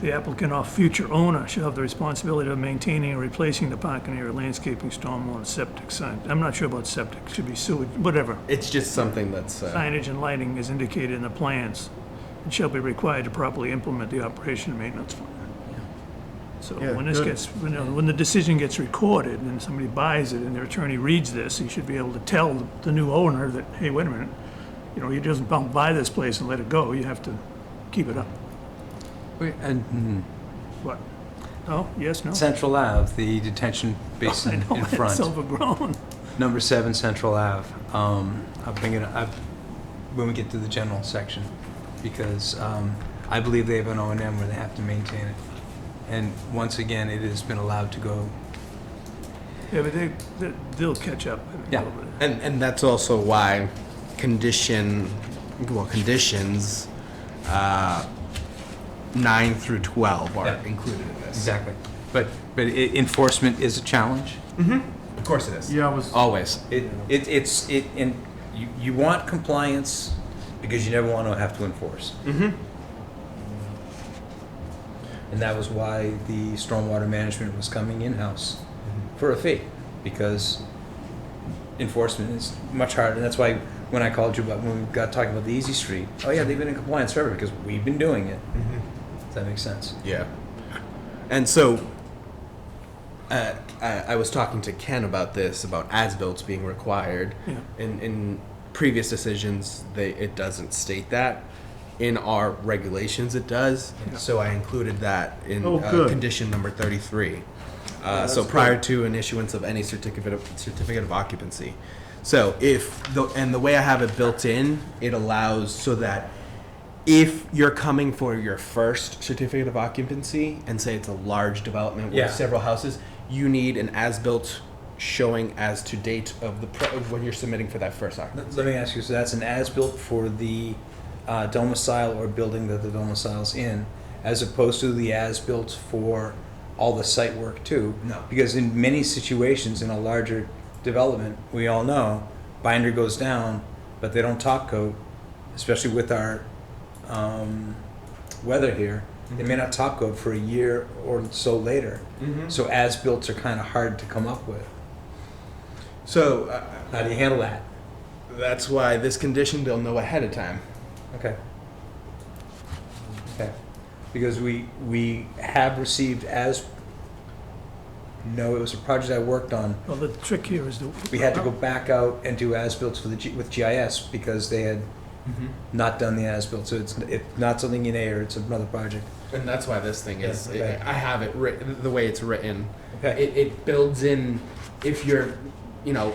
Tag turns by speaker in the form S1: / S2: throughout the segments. S1: The applicant or future owner shall have the responsibility of maintaining and replacing the parking area, landscaping, stormwater, septic sign. I'm not sure about septic, should be sewage, whatever.
S2: It's just something that's, uh,
S1: Signage and lighting is indicated in the plans and shall be required to properly implement the operation and maintenance plan. So
S3: Yeah,
S1: when this
S3: good.
S1: gets, when, uh, when the decision gets recorded and somebody buys it and their attorney reads this, he should be able to tell the new owner that, hey, wait a minute, you know, you just don't buy this place and let it go, you have to keep it up.
S4: Wait, And
S1: What? Oh, yes,
S4: Mm-hmm.
S1: no? Oh,
S4: Central Ave, the detention
S1: I
S4: basin
S1: know,
S4: in front,
S1: It's overgrown.
S4: number seven Central Ave. Um, I'll bring it up when we get to the general section, because um, I believe they have an O and M where they have to maintain it. And once again, it has been allowed to go,
S1: Yeah, but they, they- they'll catch up. I think,
S4: Yeah.
S1: over there.
S2: and, and that's also why condition, well, conditions, uh, nine through 12 are
S4: Yeah.
S2: included in this.
S4: exactly. But, but i- enforcement is a challenge.
S2: Of course it is.
S3: Yeah, I was,
S2: Always.
S5: It, it, it's, it, and you, you want compliance because you never want to have to enforce. And that was why the stormwater management was coming in-house for a fee, because enforcement is much harder. And that's why when I called you about, when we got talking about the Easy Street, oh yeah, they've been in compliance forever because we've been doing it. Does that make sense?
S2: Yeah. And so, uh, I, I was talking to Ken about this about as builts being required.
S1: Yeah.
S2: In in previous decisions, they it doesn't state that. In our regulations, it does. So I included that in
S3: Oh,
S2: uh,
S3: good. Oh,
S2: condition number thirty three. Uh, so prior to an issuance of any certificate of certificate of occupancy. So if the and the way I have it built in, it allows so that if you're coming for your first certificate of occupancy and say it's a large development with
S4: Yeah.
S2: several houses, you need an as-built showing as to date of the pro- of when you're submitting for that first occupancy.
S5: Let let me ask you, so that's an as-built for the uh, domicile or building that the domicile's in, as opposed to the as-built for all the site work too?
S2: No.
S5: Because in many situations, in a larger development, we all know, binder goes down, but they don't top coat, especially with our um, weather here. They may not top coat for a year or so later. So as-builts are kind of hard to come up with.
S2: So uh,
S5: How do you handle that?
S2: that's why this condition they'll know ahead of time.
S5: Okay. Okay, because we, we have received as, no, it was a project I worked on.
S1: Well, the trick here is that.
S5: We had to go back out and do as-built for the, G- with GIS because they had not done the as-built. So it's, it's not something in air, it's another project.
S2: And that's why this thing is.
S5: Yeah, okay.
S2: I I have it written the way it's written.
S5: Okay.
S2: It, it builds in if you're, you know,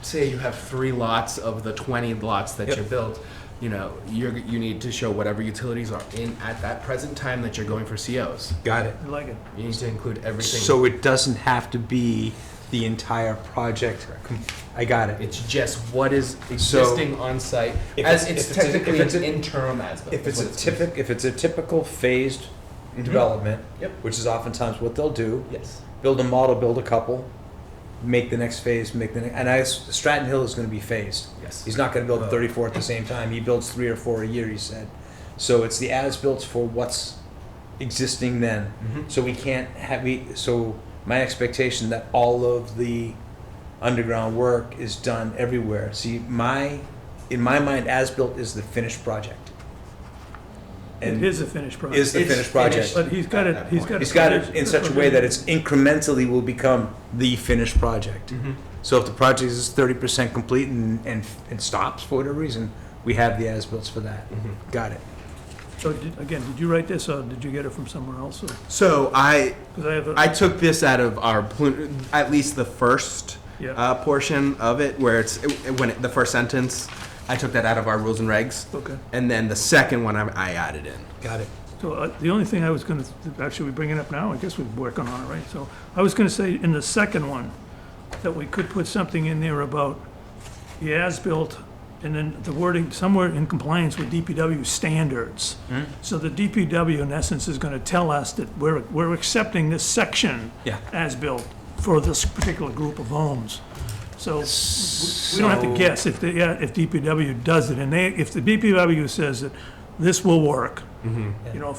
S2: say you have three lots of the 20 lots that
S5: Yep.
S2: you built. You know, you're, you need to show whatever utilities are in at that present time that you're going for COs.
S4: Got it.
S1: I like it.
S2: You need to include everything.
S4: So it doesn't have to be the entire project. com- I got it.
S2: it's just what is
S4: So-
S2: existing on site
S5: If
S2: as
S5: it's-
S2: it's,
S5: if it's a- if
S2: technically
S5: it's a-
S2: an interim as built.
S5: If
S2: is
S5: it's
S2: what
S5: a typic, if it's a typical phased development,
S2: Yep.
S5: which is oftentimes what they'll do,
S2: yes,
S5: build a model, build a couple, make the next phase, make the next, and I, Stratton Hill is gonna be phased.
S2: Yes.
S5: He's not gonna build thirty-four at the same time, he builds three or four a year, he said. So it's the as-built for what's existing then. So we can't have, we, so my expectation that all of the underground work is done everywhere. See, my, in my mind, as-built is the finished project.
S1: It
S5: And
S1: is a finished product.
S5: is the
S2: It's
S5: finished project.
S2: finished.
S1: But he's got it, he's got it.
S5: He's got it in such a way that it's incrementally will become the finished project. So if the project is thirty percent complete and, and, and stops for whatever reason, we have the as-bills for that. Got it.
S1: So, did- again, did you write this, or did you get it from somewhere else? Because
S2: so I
S1: I have, a-
S2: I took this out of our plu- at least the first
S1: Yeah.
S2: uh, portion of it where it's when it, the first sentence. I took that out of our rules and regs,
S1: okay.
S2: and then the second one I, I added in.
S4: Got it.
S1: So uh, the only thing I was going to, actually, we bring it up now, I guess we're working on it, right? So I was going to say in the second one, that we could put something in there about the as-built and then the wording, somewhere in compliance with DPW standards. So the DPW in essence is going to tell us that we're, we're accepting this section
S4: Yeah.
S1: as-built for this particular group of homes. So we don't have to
S4: So-
S1: guess if the, yeah, if DPW does it, and they, if the DPW says that this will work, you know,